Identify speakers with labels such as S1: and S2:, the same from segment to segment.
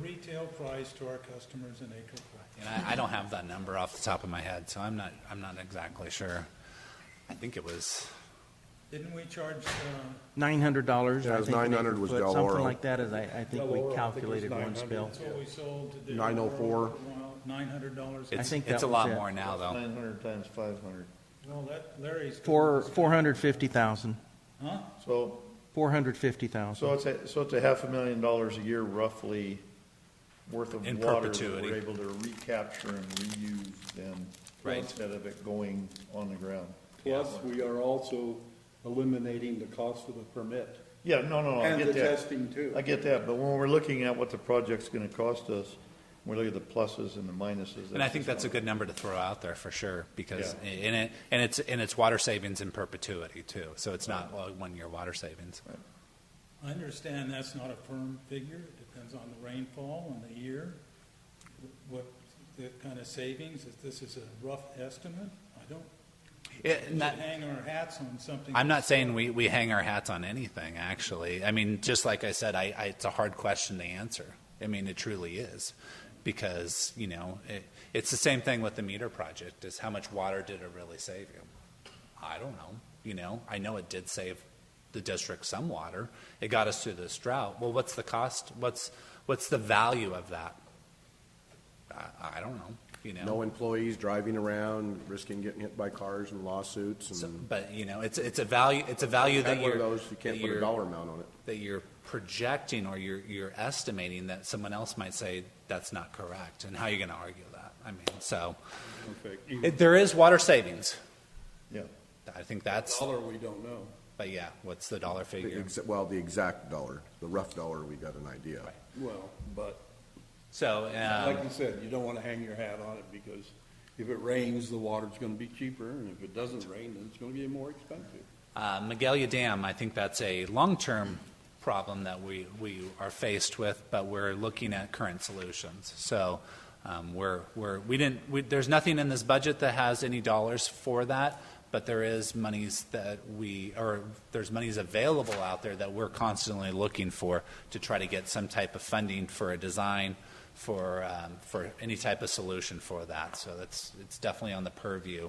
S1: retail price to our customers in acre foot.
S2: And I, I don't have that number off the top of my head, so I'm not, I'm not exactly sure. I think it was,
S1: Didn't we charge, uh,
S3: Nine hundred dollars,
S4: Yeah, it
S3: I
S4: was
S3: think. an acre
S4: $900 was
S3: foot, Something
S4: Del Oro.
S3: like that, as I, I think we calculated once, Bill.
S1: that's what we sold to the.
S4: 904.
S1: Nine hundred dollars.
S2: it's,
S3: think
S2: it's
S3: that
S2: a
S3: was
S2: lot
S3: it.
S2: more now, though.
S5: Nine hundred times five hundred.
S1: Well, that, Larry's.
S3: Four, four hundred fifty thousand,
S1: Huh?
S5: So,
S3: four hundred fifty thousand.
S5: so it's a, so it's a half a million dollars a year roughly worth of
S2: In
S5: water that
S2: perpetuity.
S5: we're able to recapture and reuse then.
S2: Right.
S5: Instead of it going on the ground.
S6: Plus, we are also eliminating the cost of the permit
S5: Yeah, no, no, no, Oh, I
S6: and the
S5: get that.
S6: testing too.
S5: I get that, but when we're looking at what the project's gonna cost us, we look at the pluses and the minuses.
S2: And I think
S5: just
S2: that's a
S5: one.
S2: good number to throw out there for sure, because
S5: Yeah.
S2: in it, and it's, and it's water savings in perpetuity too. So it's not well, one-year water savings.
S1: I understand that's not a firm figure, it depends on the rainfall and the year, what, the kind of savings, if this is a rough estimate, I don't,
S2: It-
S1: we
S2: and
S1: should
S2: that-
S1: hang our hats on something.
S2: I'm not saying we, we hang our hats on anything, actually. I mean, just like I said, I, I, it's a hard question to answer. I mean, it truly is. Because, you know, it, it's the same thing with the meter project is how much water did it really save you? I don't know. You know, I know it did save the district some water. It got us through this drought. Well, what's the cost? What's, what's the value of that? I, I don't know, you know?
S4: No employees driving around, risking getting hit by cars and lawsuits
S2: So-
S4: and.
S2: But, you know, it's, it's a value, it's a value that
S4: Had one
S2: you're.
S4: of those, you can't
S2: that
S4: put a
S2: you're-
S4: dollar amount on it.
S2: that you're projecting or you're, you're estimating that someone else might say that's not correct and how you're going to argue that. I mean, so
S6: Okay.
S2: it, there is water savings.
S5: Yeah.
S2: I think that's,
S6: Dollar, we don't know.
S2: but yeah, what's the dollar
S4: The
S2: figure?
S4: exa- Well, the exact dollar, the rough dollar, we got an idea.
S6: Well, but
S2: So,
S6: like
S2: um,
S6: you said, you don't want to hang your hat on it because if it rains, the water's going to be cheaper, and if it doesn't rain, then it's going to be more expensive.
S2: uh, Magalia Dam, I think that's a long-term problem that we, we are faced with, but we're looking at current solutions. So, um, we're, we're, we didn't, we, there's nothing in this budget that has any dollars for that, but there is monies that we, or there's monies available out there that we're constantly looking for to try to get some type of funding for a design, for, um, for any type of solution for that. So that's, it's definitely on the purview.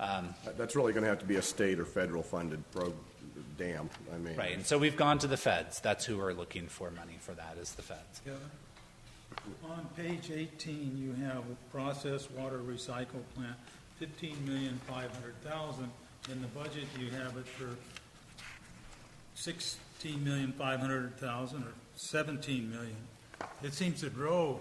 S2: Um,
S4: That- That's really gonna have to be a state or federal funded pro, dam, I mean.
S2: Right, and so we've gone to the feds. That's who we're looking for money for that, is the feds.
S1: together. On page eighteen, you have process water recycle plant, fifteen million five hundred thousand. In the budget, you have it for sixteen million five hundred thousand or seventeen million. It seems to grow.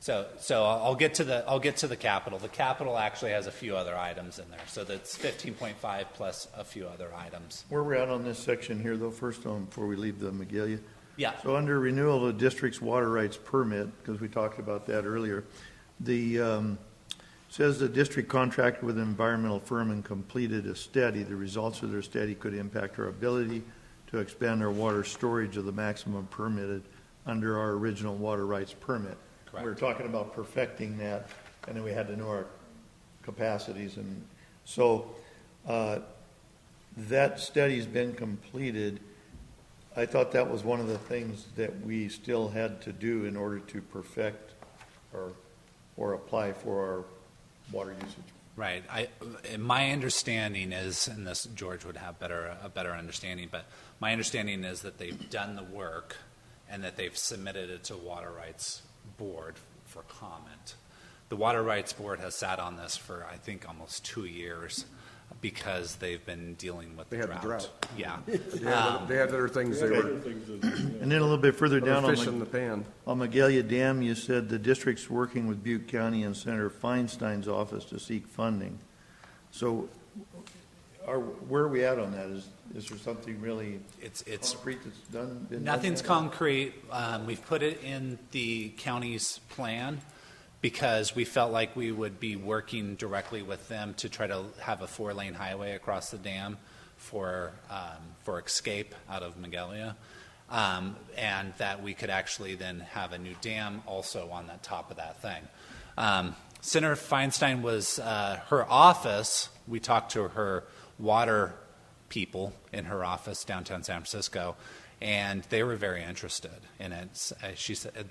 S2: So, so I'll I'll get to the, I'll get to the capital. The capital actually has a few other items in there, so that's fifteen point five plus a few other items.
S5: Where we're at on this section here though, first on, before we leave the Magalia,
S2: Yeah,
S5: So under renewal of district's water rights permit, because we talked about that earlier, the, um, says the district contracted with an environmental firm and completed a study. The results of their study could impact our ability to expand our water storage of the maximum permitted under our original water rights permit. We were
S2: Correct.
S5: talking about perfecting that, and then we had to know our capacities and, so, uh, that study's been completed. I thought that was one of the things that we still had to do in order to perfect or, or apply for our water usage.
S2: right. I, and my understanding is, and this, George would have better, a better understanding, but my understanding is that they've done the work and that they've submitted it to Water Rights Board for comment. The Water Rights Board has sat on this for, I think, almost two years because they've been dealing with the
S4: They had the drought.
S2: Yeah.
S4: They had, they had other things they
S6: Other
S4: were,
S6: things that-
S5: And then a little bit further down
S4: other
S5: on
S4: fish in the
S5: the,
S4: pan.
S5: on Magalia Dam, you said the district's working with Butte County and Senator Feinstein's office to seek funding. So are, where are we at on that? Is, is there something really
S2: It's, it's,
S5: concrete that's done? been done
S2: nothing's
S5: yet?
S2: concrete. Um, we've put it in the county's plan because we felt like we would be working directly with them to try to have a four-lane highway across the dam for, um, for escape out of Magalia. Um, and that we could actually then have a new dam also on the top of that thing. Um, Senator Feinstein was, uh, her office, we talked to her water people in her office downtown San Francisco, and they were very interested in it. S- uh, She said,